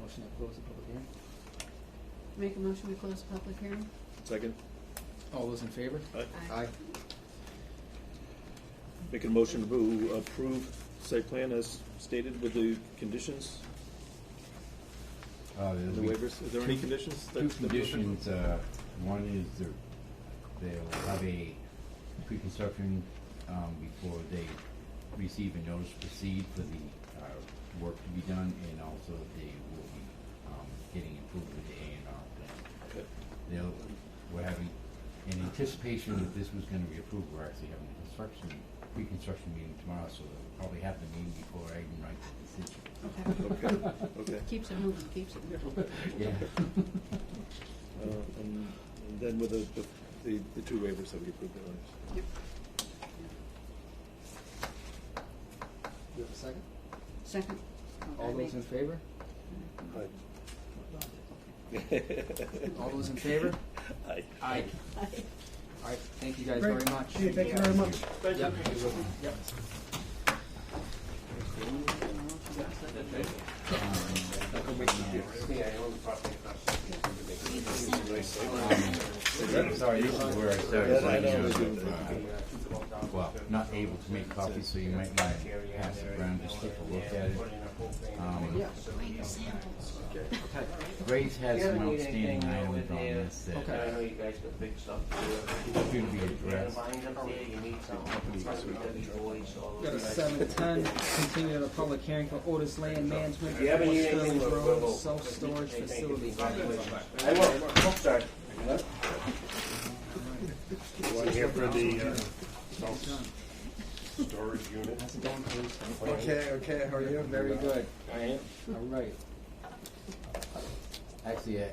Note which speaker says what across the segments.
Speaker 1: motion to close the public hearing.
Speaker 2: Make a motion to close the public hearing?
Speaker 3: Second.
Speaker 1: All those in favor?
Speaker 2: Aye.
Speaker 3: Making a motion to approve site plan as stated with the conditions
Speaker 4: Uh,
Speaker 3: and the
Speaker 4: there's
Speaker 3: waivers. Is there any conditions?
Speaker 4: two
Speaker 3: that's-
Speaker 4: conditions, uh, one is they're- they'll have a pre-construction, um, before they receive a notice to proceed for the, uh, work to be done, and also they will be, um, getting approval of the A and R plan.
Speaker 3: Okay.
Speaker 4: They'll, we're having, in anticipation that this was gonna be approved, we're actually having a construction, pre-construction meeting tomorrow, so they'll probably have the meeting before I even write the decision.
Speaker 2: Okay.
Speaker 3: Okay, okay.
Speaker 2: Keeps it moving, keeps it moving.
Speaker 4: Yeah.
Speaker 3: Uh, And and then with the, the- the, the two waivers that we approved uh, earlier.
Speaker 2: Yep.
Speaker 1: Do you have a second?
Speaker 2: Second?
Speaker 1: All those in favor? All those in favor?
Speaker 3: Aye.
Speaker 1: Aye. All right, thank you guys very
Speaker 5: Great.
Speaker 1: much.
Speaker 5: Hey, thank you very much.
Speaker 1: Yep, you will be. Yep.
Speaker 4: Sorry, this is where I started
Speaker 3: I
Speaker 4: saying, you
Speaker 3: know.
Speaker 4: know, uh, well, not able to make copies, so you might want to pass it around just take a look at it. Um,
Speaker 1: Okay,
Speaker 4: Grace has
Speaker 6: You
Speaker 4: some
Speaker 6: haven't need anything
Speaker 4: outstanding
Speaker 6: over
Speaker 4: items on
Speaker 6: there.
Speaker 4: this that
Speaker 1: Okay.
Speaker 6: I know you guys got big stuff to
Speaker 4: should
Speaker 6: do.
Speaker 4: be
Speaker 6: You got a
Speaker 4: addressed.
Speaker 6: bind up there, you need something, it's like W Boyd's, all
Speaker 1: got a
Speaker 6: those guys.
Speaker 1: seven ten, continue the public hearing for Otis Land Management,
Speaker 6: You haven't
Speaker 1: Fort
Speaker 6: eaten anything
Speaker 1: Sterling
Speaker 6: for a
Speaker 1: Road,
Speaker 6: little-
Speaker 1: self-storage
Speaker 6: Hey, thank you.
Speaker 1: facility.
Speaker 6: I will, I'll start.
Speaker 7: One here for the, uh,
Speaker 1: How's it going, Bruce?
Speaker 7: okay, okay, how are you?
Speaker 1: Very good,
Speaker 6: I am.
Speaker 1: all right.
Speaker 4: Actually, I-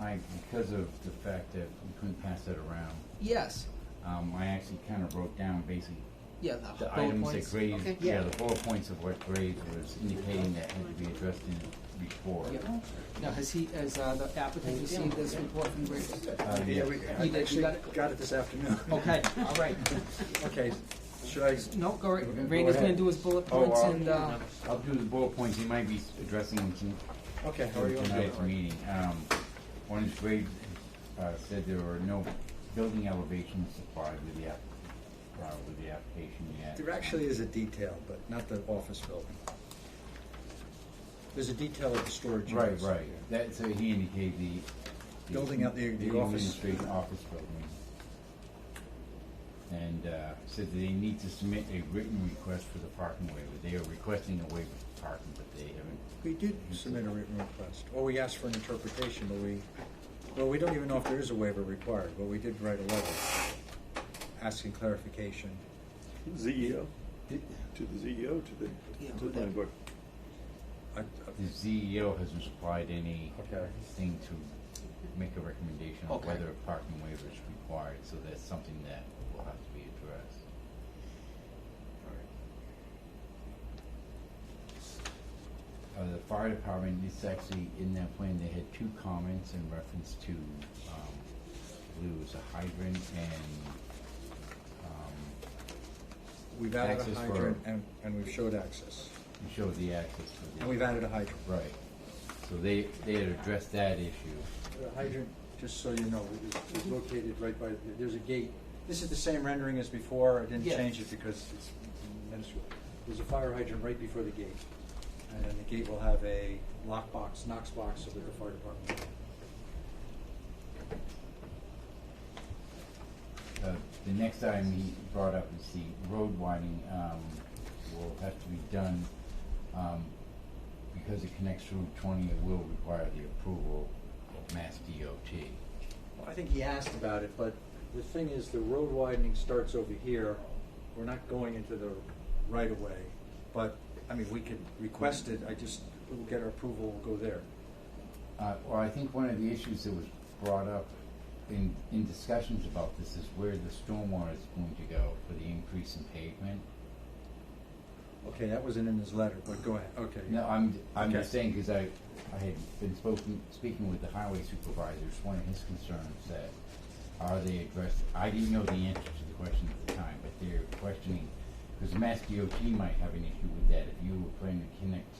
Speaker 4: I, because of the fact that we couldn't pass it around,
Speaker 1: Yes,
Speaker 4: um, I actually kind of wrote down basically
Speaker 1: yeah,
Speaker 4: the
Speaker 1: bullet
Speaker 4: items
Speaker 1: points.
Speaker 4: that Graves,
Speaker 2: Okay.
Speaker 4: yeah, the bullet points of what Graves was indicating that had to be addressed in the report.
Speaker 1: Yep. Now, has he, has uh, the applicant received this report from Graves?
Speaker 4: Uh,
Speaker 7: Yeah,
Speaker 4: yeah.
Speaker 7: we,
Speaker 1: You
Speaker 7: I
Speaker 1: did, you
Speaker 7: actually
Speaker 1: got it?
Speaker 7: got it this afternoon.
Speaker 1: Okay, all right.
Speaker 7: Okay, should I,
Speaker 1: No, go right,
Speaker 4: Go
Speaker 1: Randy's gonna
Speaker 4: ahead.
Speaker 1: do his bullet
Speaker 4: Oh,
Speaker 1: points
Speaker 4: uh,
Speaker 1: and, uh,
Speaker 4: I'll do the bullet points, he might be addressing them some-
Speaker 7: okay, how are you?
Speaker 4: tonight's meeting. Um, one is Graves, uh, said there were no building elevations supplied with the app, uh, with the application yet.
Speaker 7: There actually is a detail, but not the office building. There's a detail of the storage
Speaker 4: Right,
Speaker 7: units.
Speaker 4: right, that, so he indicated the. the-
Speaker 7: Building up the- the office.
Speaker 4: administration office building. And, uh, said that they need to submit a written request for the parking waiver, they are requesting a waiver for parking, but they haven't
Speaker 7: We did submit a written request, or we asked for an interpretation, but we, well, we don't even know if there is a waiver required, but we did write a letter asking clarification.
Speaker 3: ZEO, E to the ZEO, to the, to the planning board.
Speaker 7: I- I-
Speaker 4: The CEO hasn't supplied any
Speaker 7: Okay.
Speaker 4: thing to make a recommendation on
Speaker 1: Okay.
Speaker 4: whether a parking waiver is required, so that's something that will have to be addressed. Uh, the fire department, it's actually in that plan, they had two comments in reference to, um, I believe it was a hydrant and, um,
Speaker 7: We've added
Speaker 4: Access
Speaker 7: a
Speaker 4: for-
Speaker 7: hydrant, and, and we've showed access,
Speaker 4: it showed the access for the.
Speaker 7: and we've added a hydrant.
Speaker 4: Right, so they, they had addressed that issue.
Speaker 7: The hydrant, just so you know, is located right by, there's a gate. This is the same rendering as before, I didn't
Speaker 1: Yeah.
Speaker 7: change it because it's minuscule. There's a fire hydrant right before the gate. And then the gate will have a lockbox, Knox box, so that the fire department.
Speaker 4: Uh, The next item he brought up is the road widening, um, will have to be done, um, because it connects Route twenty, it will require the approval of Mass DOT.
Speaker 7: Well, I think he asked about it, but the thing is, the road widening starts over here. We're not going into the right of way, but, I mean, we could request it, I just, we'll get our approval, we'll go there.
Speaker 4: Uh, or I think one of the issues that was brought up in, in discussions about this is where the stormwater is going to go for the increase in pavement.
Speaker 7: Okay, that wasn't in his letter, but go ahead, okay.
Speaker 4: No, I'm, I'm just
Speaker 7: Okay.
Speaker 4: saying, because I, I had been spoken, speaking with the highway supervisor, it's one of his concerns that are they addressed, I didn't know the answer to the question at the time, but they're questioning, because Mass DOT might have an issue with that, if you were planning to connect